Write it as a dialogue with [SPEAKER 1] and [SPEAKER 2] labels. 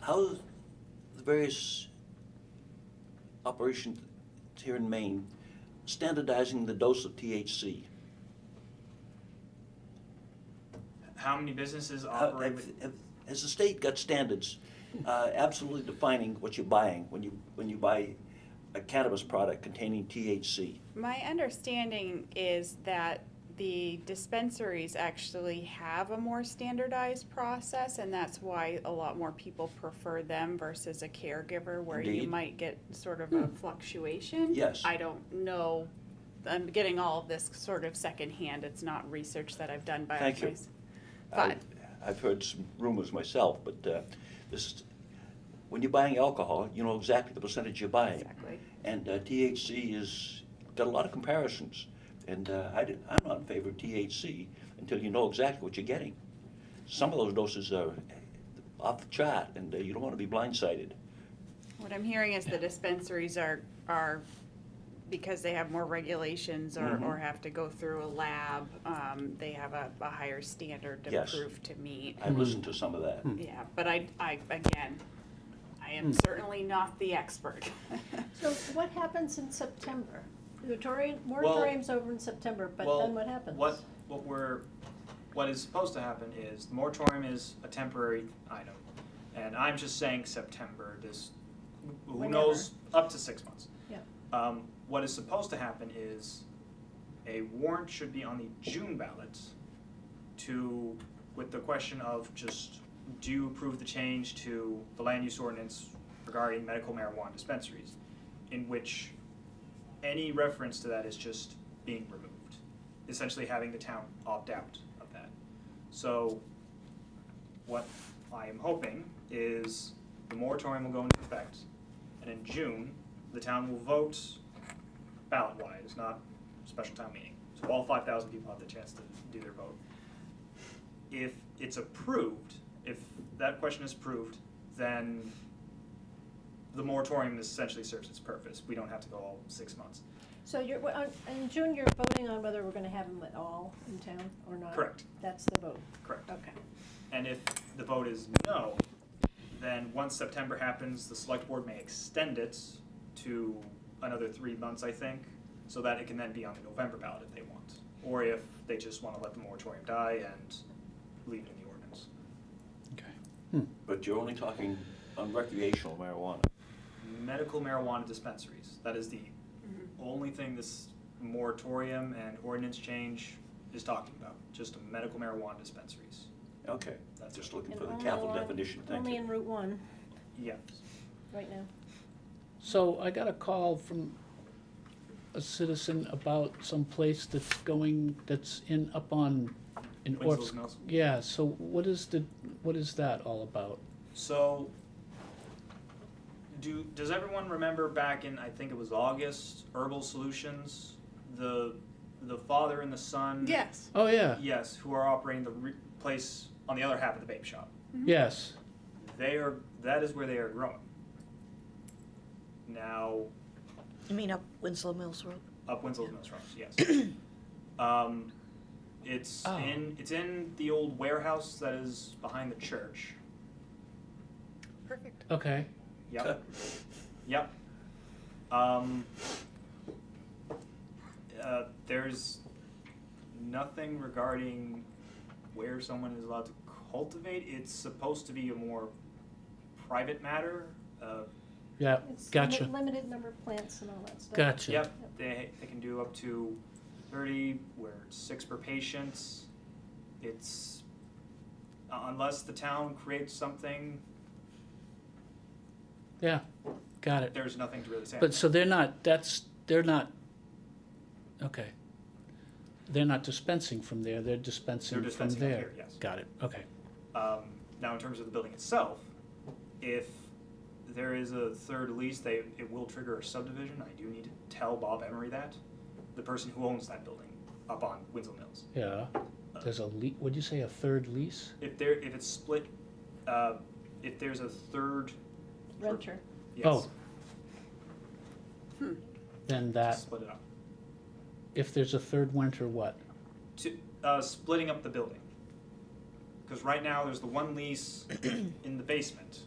[SPEAKER 1] how the various operations here in Maine standardizing the dose of THC?
[SPEAKER 2] How many businesses
[SPEAKER 1] How-
[SPEAKER 2] operate
[SPEAKER 1] have-
[SPEAKER 2] with,
[SPEAKER 1] have- Has the state got standards uh, absolutely defining what you're buying when you, when you buy a cannabis product containing THC?
[SPEAKER 3] My understanding is that the dispensaries actually have a more standardized process, and that's why a lot more people prefer them versus a caregiver, where you
[SPEAKER 1] Indeed. Hmm.
[SPEAKER 3] might get sort of a fluctuation.
[SPEAKER 1] Yes.
[SPEAKER 3] I don't know, I'm getting all of this sort of secondhand, it's not research that I've done by
[SPEAKER 1] Thank you.
[SPEAKER 3] myself.
[SPEAKER 1] I-
[SPEAKER 3] But,
[SPEAKER 1] I've heard some rumors myself, but uh, this, when you're buying alcohol, you know exactly the percentage you're buying.
[SPEAKER 3] exactly.
[SPEAKER 1] And uh, THC is, got a lot of comparisons. And uh, I did, I'm not in favor of THC until you know exactly what you're getting. Some of those doses are off the chart, and uh, you don't want to be blindsided.
[SPEAKER 3] What I'm hearing is the dispensaries are, are, because they have more regulations or,
[SPEAKER 1] Mhm.
[SPEAKER 3] or have to go through a lab, um, they have a, a higher standard to
[SPEAKER 1] Yes.
[SPEAKER 3] prove to meet.
[SPEAKER 1] I listened to some of that.
[SPEAKER 3] Yeah, but I, I, again, I
[SPEAKER 1] Hmm.
[SPEAKER 3] am certainly not the expert.
[SPEAKER 4] So what happens in September? The moratorium,
[SPEAKER 1] Well-
[SPEAKER 4] moratorium's over in September, but
[SPEAKER 2] Well,
[SPEAKER 4] then what happens?
[SPEAKER 2] what, what we're, what is supposed to happen is, the moratorium is a temporary item. And I'm just saying September, this, who
[SPEAKER 4] Whenever.
[SPEAKER 2] knows, up to six months.
[SPEAKER 4] Yeah.
[SPEAKER 2] Um, what is supposed to happen is, a warrant should be on the June ballot to, with the question of just, do you approve the change to the land use ordinance regarding medical marijuana dispensaries? In which any reference to that is just being removed, essentially having the town opt out of that. So, what I am hoping is the moratorium will go into effect, and in June, the town will vote ballot-wise, not special town meeting. So all five thousand people have the chance to do their vote. If it's approved, if that question is approved, then the moratorium essentially serves its purpose. We don't have to go all six months.
[SPEAKER 4] So you're, well, on- in June, you're voting on whether we're gonna have them at all in town or not?
[SPEAKER 2] Correct.
[SPEAKER 4] That's the vote,
[SPEAKER 2] Correct.
[SPEAKER 4] okay.
[SPEAKER 2] And if the vote is no, then once September happens, the select board may extend it to another three months, I think, so that it can then be on the November ballot if they want. Or if they just want to let the moratorium die and leave it in the ordinance.
[SPEAKER 1] But you're only talking on recreational marijuana.
[SPEAKER 2] Medical marijuana dispensaries, that is the only thing this moratorium and ordinance change is talking about, just medical marijuana dispensaries.
[SPEAKER 1] Okay,
[SPEAKER 2] That's
[SPEAKER 1] just looking
[SPEAKER 4] And
[SPEAKER 1] for the
[SPEAKER 4] only
[SPEAKER 1] capital
[SPEAKER 4] on-
[SPEAKER 1] definition, thank
[SPEAKER 4] Only
[SPEAKER 1] you.
[SPEAKER 4] in Route One,
[SPEAKER 2] Yes.
[SPEAKER 4] right now.
[SPEAKER 5] So I got a call from a citizen about some place that's going, that's in, up on, in
[SPEAKER 2] Winslow's
[SPEAKER 5] Orf's.
[SPEAKER 2] Mills.
[SPEAKER 5] Yeah, so what is the, what is that all about?
[SPEAKER 2] So, do does everyone remember back in I think it was August Herbal Solutions, the the father and the son.
[SPEAKER 3] Yes.
[SPEAKER 5] Oh, yeah,
[SPEAKER 2] Yes, who are operating the re- place on the other half of the vape shop.
[SPEAKER 5] yes,
[SPEAKER 2] They are that is where they are growing. Now,
[SPEAKER 6] You mean up Winslow Mills Road?
[SPEAKER 2] up Winslow's Mills Rocks, yes. um, it's
[SPEAKER 5] Oh.
[SPEAKER 2] in it's in the old warehouse that is behind the church.
[SPEAKER 6] Perfect.
[SPEAKER 5] okay.
[SPEAKER 2] Yep. Yep. Um, uh, there's nothing regarding where someone is allowed to cultivate. It's supposed to be a more private matter. Uh,
[SPEAKER 5] Yeah,
[SPEAKER 4] It's limit-
[SPEAKER 5] gotcha,
[SPEAKER 4] Limited number of plants and all that stuff.
[SPEAKER 5] gotcha.
[SPEAKER 2] Yep, they, they can do up to 30, where it's six per patient. It's, unless the town creates something,
[SPEAKER 5] Yeah, got it.
[SPEAKER 2] there's nothing to really say.
[SPEAKER 5] Uh, But so they're not, that's, they're not, okay. They're not dispensing from there, they're
[SPEAKER 2] They're
[SPEAKER 5] dispensing from
[SPEAKER 2] dispensing up
[SPEAKER 5] there.
[SPEAKER 2] here, yes.
[SPEAKER 5] Got it, okay.
[SPEAKER 2] Um, now, in terms of the building itself, if there is a third lease, they, it will trigger a subdivision. I do need to tell Bob Emery that, the person who owns that building up on Winslow Mills.
[SPEAKER 5] Yeah, there's a lea, what'd you say, a third lease?
[SPEAKER 2] If there, if it's split, uh, if there's a third,
[SPEAKER 4] Renter.
[SPEAKER 2] yes,
[SPEAKER 5] Oh.
[SPEAKER 3] Hmm.
[SPEAKER 5] Then that,
[SPEAKER 2] split it up.
[SPEAKER 5] if there's a third winter, what?
[SPEAKER 2] To, uh, splitting up the building. Because right now, there's the one lease in the basement.